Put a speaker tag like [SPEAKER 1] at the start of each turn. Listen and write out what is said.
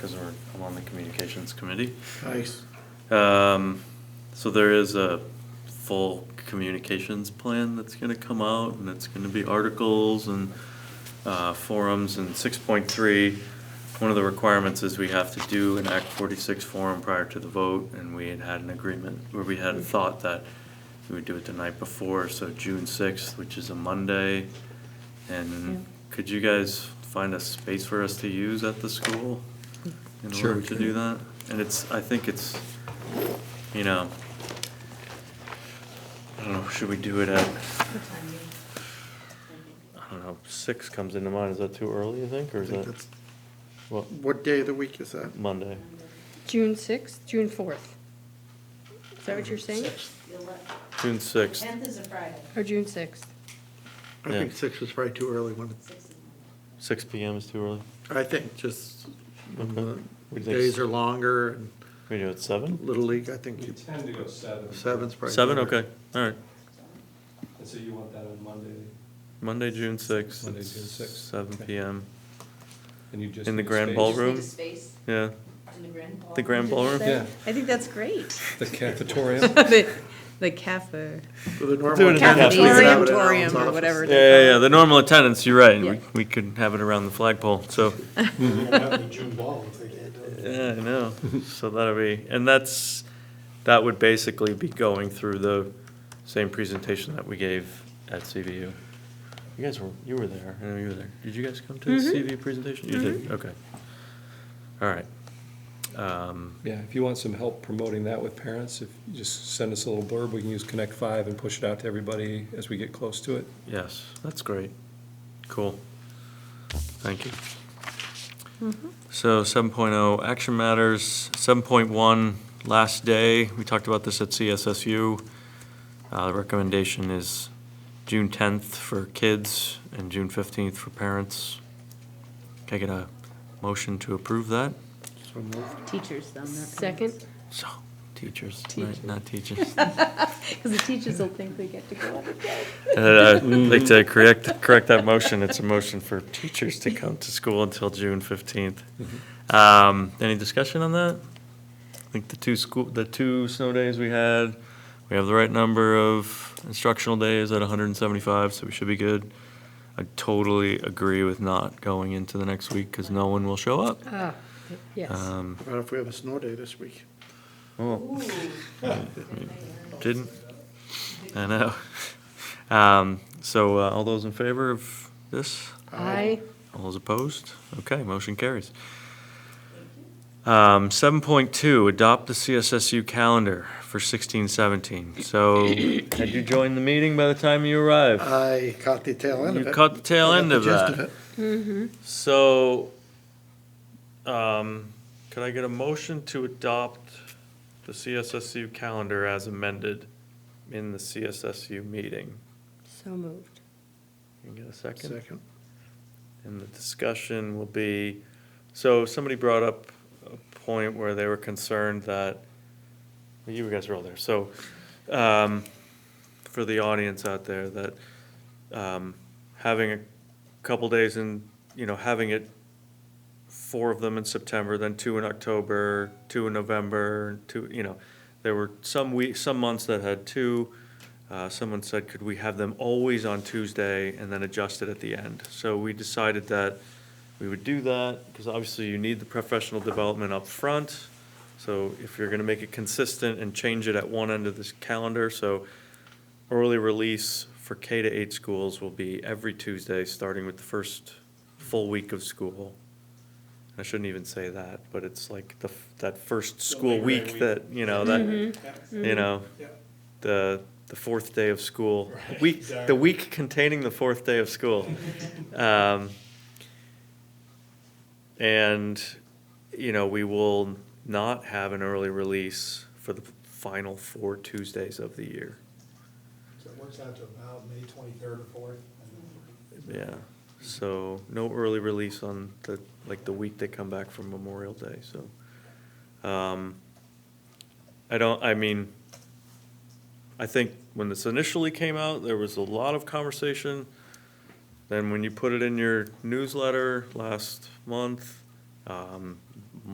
[SPEAKER 1] because we're, I'm on the communications committee.
[SPEAKER 2] Nice.
[SPEAKER 1] Um, so there is a full communications plan that's gonna come out, and it's gonna be articles and, uh, forums, and six point three, one of the requirements is we have to do an Act forty-six forum prior to the vote, and we had had an agreement, where we had thought that we would do it the night before, so June sixth, which is a Monday, and could you guys find a space for us to use at the school? in
[SPEAKER 3] Sure.
[SPEAKER 1] order to do that. And it's, I think it's, you know, I don't know, should we do it at, I don't know, six comes into mind, is that too early, you think, or
[SPEAKER 2] I
[SPEAKER 1] is
[SPEAKER 2] think
[SPEAKER 1] that,
[SPEAKER 2] that's-
[SPEAKER 1] what,
[SPEAKER 2] What day of the week is that?
[SPEAKER 1] Monday?
[SPEAKER 4] June sixth, June fourth. Is that what you're saying?
[SPEAKER 1] June sixth,
[SPEAKER 5] Tenth is a Friday,
[SPEAKER 4] Or June sixth?
[SPEAKER 2] I think
[SPEAKER 1] Yeah.
[SPEAKER 2] six is probably too early when,
[SPEAKER 5] six is Monday.
[SPEAKER 1] six P M is too early?
[SPEAKER 2] I think just when
[SPEAKER 1] Okay.
[SPEAKER 2] the
[SPEAKER 1] We think
[SPEAKER 2] days
[SPEAKER 1] s-
[SPEAKER 2] are longer and
[SPEAKER 1] We do it at seven?
[SPEAKER 2] Little League, I think
[SPEAKER 6] We
[SPEAKER 2] you-
[SPEAKER 6] tend to go seven.
[SPEAKER 2] seven's probably.
[SPEAKER 1] Seven,
[SPEAKER 2] better.
[SPEAKER 1] okay, all right.
[SPEAKER 6] And so you want that on Monday,
[SPEAKER 1] Monday, June sixth,
[SPEAKER 6] Monday, June 6th,
[SPEAKER 1] seven
[SPEAKER 6] okay.
[SPEAKER 1] P M,
[SPEAKER 6] and you just.
[SPEAKER 1] In the
[SPEAKER 6] need
[SPEAKER 1] grand
[SPEAKER 6] space.
[SPEAKER 1] ballroom?
[SPEAKER 5] Just need a space
[SPEAKER 1] yeah,
[SPEAKER 5] in the grand ballroom.
[SPEAKER 1] the grand ballroom?
[SPEAKER 6] Yeah.
[SPEAKER 4] I think that's great.
[SPEAKER 6] The cafeteria.
[SPEAKER 4] The the cafe,
[SPEAKER 2] So the normal
[SPEAKER 1] Do it in the
[SPEAKER 2] attendance, we could have it in our
[SPEAKER 4] cafeteria.
[SPEAKER 2] own
[SPEAKER 4] Cafetorium or
[SPEAKER 2] office.
[SPEAKER 4] whatever.
[SPEAKER 1] Yeah, yeah, yeah, the normal attendance, you're right,
[SPEAKER 4] Yeah.
[SPEAKER 1] we, we could have it around the flagpole, so.
[SPEAKER 6] Mm-hmm.
[SPEAKER 1] Yeah, I know. So that'll be, and that's, that would basically be going through the same presentation that we gave at CVU. You guys were, you were there, I know you were there. Did you guys come to the CVU presentation? You did, okay. All right. Um,
[SPEAKER 6] Yeah, if you want some help promoting that with parents, if you just send us a little blurb, we can use Connect Five and push it out to everybody as we get close to it.
[SPEAKER 1] Yes, that's great. Cool. Thank you. So seven oh, action matters, seven point one, last day, we talked about this at CSSU. Uh, the recommendation is June tenth for kids and June fifteenth for parents. Can I get a motion to approve that?
[SPEAKER 2] So moved.
[SPEAKER 7] Teachers, though.
[SPEAKER 4] Second,
[SPEAKER 1] So, teachers,
[SPEAKER 7] Teachers.
[SPEAKER 1] right, not teachers.
[SPEAKER 7] Because the teachers will think they get to go up.
[SPEAKER 1] Uh, I'd like to correct, correct that motion. It's a motion for teachers to come to school until June fifteenth. Um, any discussion on that? I think the two school, the two snow days we had, we have the right number of instructional days at hundred and seventy-five, so we should be good. I totally agree with not going into the next week because no one will show up.
[SPEAKER 4] ah, yes.
[SPEAKER 1] Um,
[SPEAKER 2] What if we have a snow day this week?
[SPEAKER 1] well,
[SPEAKER 5] Ooh.
[SPEAKER 1] Oh. didn't, I know. Um, so, uh, all those in favor of this?
[SPEAKER 4] I,
[SPEAKER 1] All those opposed? Okay, motion carries. Um, seven point two, adopt the CSSU calendar for sixteen seventeen. So, had you joined the meeting by the time you arrived?
[SPEAKER 2] I caught the tail end of
[SPEAKER 1] You
[SPEAKER 2] it.
[SPEAKER 1] caught the tail
[SPEAKER 2] Uh, I got
[SPEAKER 1] end
[SPEAKER 2] the
[SPEAKER 1] of
[SPEAKER 2] gist
[SPEAKER 1] that.
[SPEAKER 4] mm-hmm.
[SPEAKER 1] So, um, could I get a motion to adopt the CSSU calendar as amended in the CSSU meeting?
[SPEAKER 4] so moved.
[SPEAKER 1] Can you get a second?
[SPEAKER 2] Second.
[SPEAKER 1] And the discussion will be, so somebody brought up a point where they were concerned that, well, you guys are all there, so, um, for the audience out there, that, um, having a couple days in, you know, having it, four of them in September, then two in October, two in November, two, you know, there were some weeks, some months that had two, uh, someone said, could we have them always on Tuesday and then adjust it at the end? So we decided that we would do that, because obviously you need the professional development up front. So if you're gonna make it consistent and change it at one end of this calendar, so early release for K to eight schools will be every Tuesday, starting with the first full week of school. I shouldn't even say that, but it's like the, f- that first school week Mm-hmm. that, you know,
[SPEAKER 4] Mm-hmm.
[SPEAKER 1] that, you know, the, the fourth day of school. Week, the week containing the fourth day of school. Um, And, you know, we will not have an early release for the final four Tuesdays of the year.
[SPEAKER 8] So it works out to about May twenty-third or fourth.
[SPEAKER 1] Yeah, so no early release on the, like, the week they come back from Memorial Day, so. um, I don't, I mean, I think when this initially came out, there was a lot of conversation. Then when you put it in your newsletter last month, um,